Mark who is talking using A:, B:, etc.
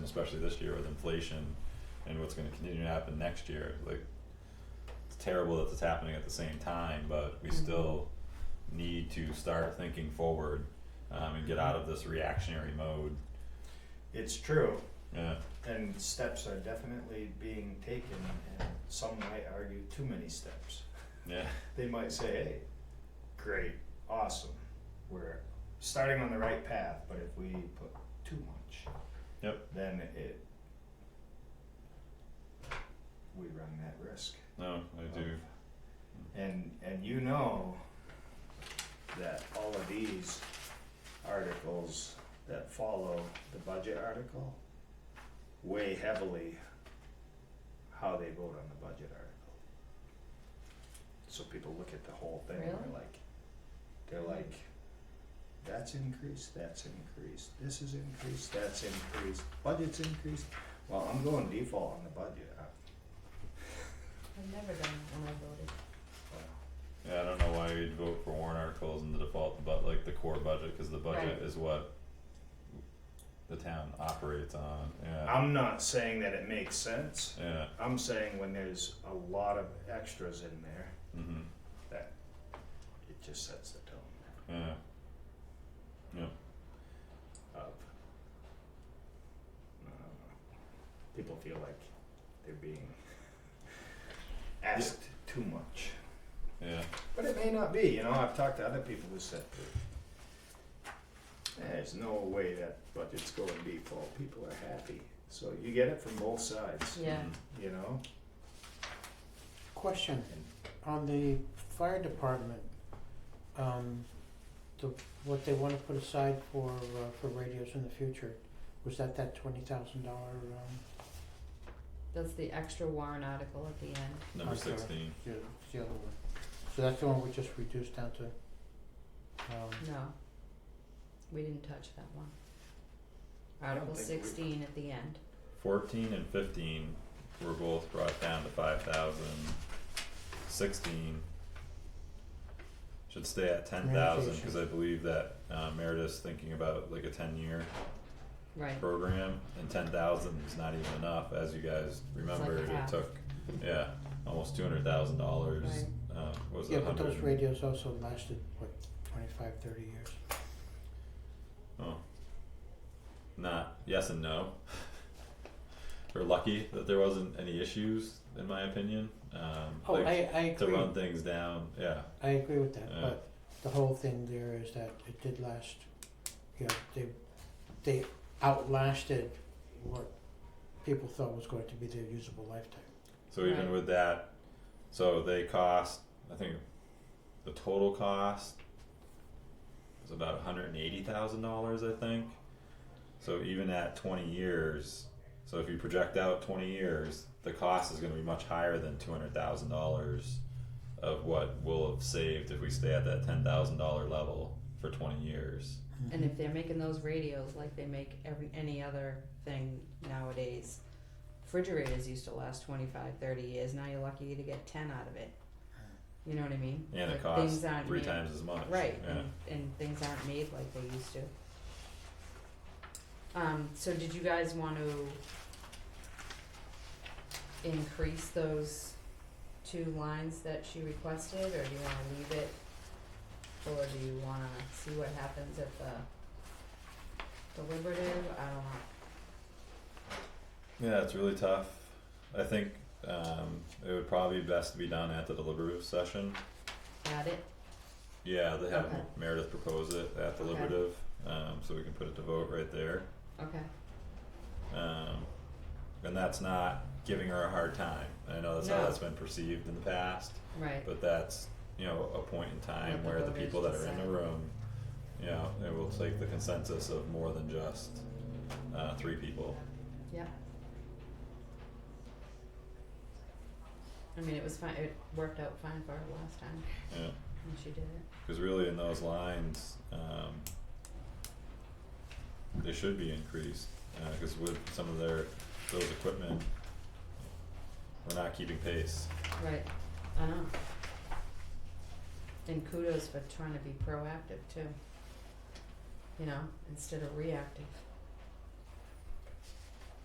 A: especially this year with inflation and what's gonna continue to happen next year, like it's terrible that it's happening at the same time, but we
B: Mhm.
A: still need to start thinking forward um and get out of this reactionary mode.
C: It's true,
A: Yeah,
C: and steps are definitely being taken, and some might argue too many steps.
A: yeah,
C: They might say, hey, great, awesome, we're starting on the right path, but if we put too much.
A: Yep.
C: Then it, we run that risk.
A: no, I do,
C: And, and you know that all of these articles that follow the budget article weigh heavily how they vote on the budget article. So people look at the whole thing and
B: Really?
C: they're like, they're like, that's increased, that's increased, this is increased, that's increased, budget's increased. Well, I'm going default on the budget, uh,
B: I've never done that when I voted.
C: well,
A: yeah, I don't know why you'd vote for warrant articles in the default, but like the core budget, cause the budget
B: Right.
A: is what the town operates on, yeah,
C: I'm not saying that it makes sense.
A: yeah,
C: I'm saying when there's a lot of extras in there,
A: mhm,
C: that it just sets the tone
A: yeah,
C: of. uh, People feel like they're being asked too much.
A: yeah,
C: But it may not be, you know, I've talked to other people who said that there's no way that budget's going default, people are happy. So you get it from both sides,
B: Yeah,
A: mhm.
C: you know?
D: Question, on the fire department, um, the, what they wanna put aside for, uh, for radios in the future, was that that twenty thousand dollar, um,
B: that's the extra warrant article at the end.
A: number
D: Okay.
A: sixteen,
D: the, the other one? So that's the one we just reduced down to, um,
B: No. We didn't touch that one. Article
C: think we-
B: sixteen at the end.
A: fourteen and fifteen were both brought down to five thousand, sixteen should stay at ten thousand, cause I believe that uh Meredith's thinking about like a ten year
B: Right.
A: program, and ten thousand is not even enough, as you guys remembered, it
B: half.
A: took, yeah, almost two hundred thousand dollars, uh, what was it,
D: yeah, but
A: hundred?
D: those radios also lasted, what, twenty-five, thirty years?
A: Oh. Not yes and no. We're lucky that there wasn't any issues, in my opinion. Um,
D: Oh,
A: like
D: I, I
A: to
D: agree,
A: run things down. Yeah,
D: I agree with that,
A: Yeah.
D: but the whole thing there is that it did last, you know, they, they outlasted what people thought was going to be their usable lifetime.
A: So even
B: Right.
A: with that, so they cost, I think, the total cost was about one hundred and eighty thousand dollars, I think. So even at twenty years, so if you project out twenty years, the cost is going to be much higher than two hundred thousand dollars of what we'll have saved if we stay at that ten thousand dollar level for twenty years.
B: And if they're making those radios like they make every any other thing nowadays, refrigerators used to last 25, 30 years. Now you're lucky to get ten out of it. You know what I mean?
A: And it
B: Like,
A: costs
B: things aren't
A: three
B: made-
A: times as much.
B: Right,
A: Yeah.
B: and, and things aren't made like they used to. Um, so did you guys want to increase those two lines that she requested, or do you wanna leave it? Or do you wanna see what happens at the deliberative, I don't know,
A: Yeah, it's really tough. I think um it would probably be best to be done at the deliberative session.
B: add it,
A: Yeah, they have
B: Okay.
A: Meredith propose it at
B: Okay.
A: deliberative, um so we can put it to vote right there.
B: okay,
A: Um and that's not giving her a hard time. I know that's how
B: No.
A: that's been perceived in the past,
B: right,
A: but that's, you know, a point in time
B: Let the
A: where the
B: voters
A: people that are in the
B: decide.
A: room, you know, it will take the consensus of more than just uh three people.
B: yeah. I mean, it was fine, it worked out fine for her last time,
A: Yeah.
B: when she did it.
A: Cause really in those lines, um, they should be increased, uh, cause with some of their, those equipment, we're not keeping pace.
B: Right, I know. And kudos for trying to be proactive too. You know, instead of reactive.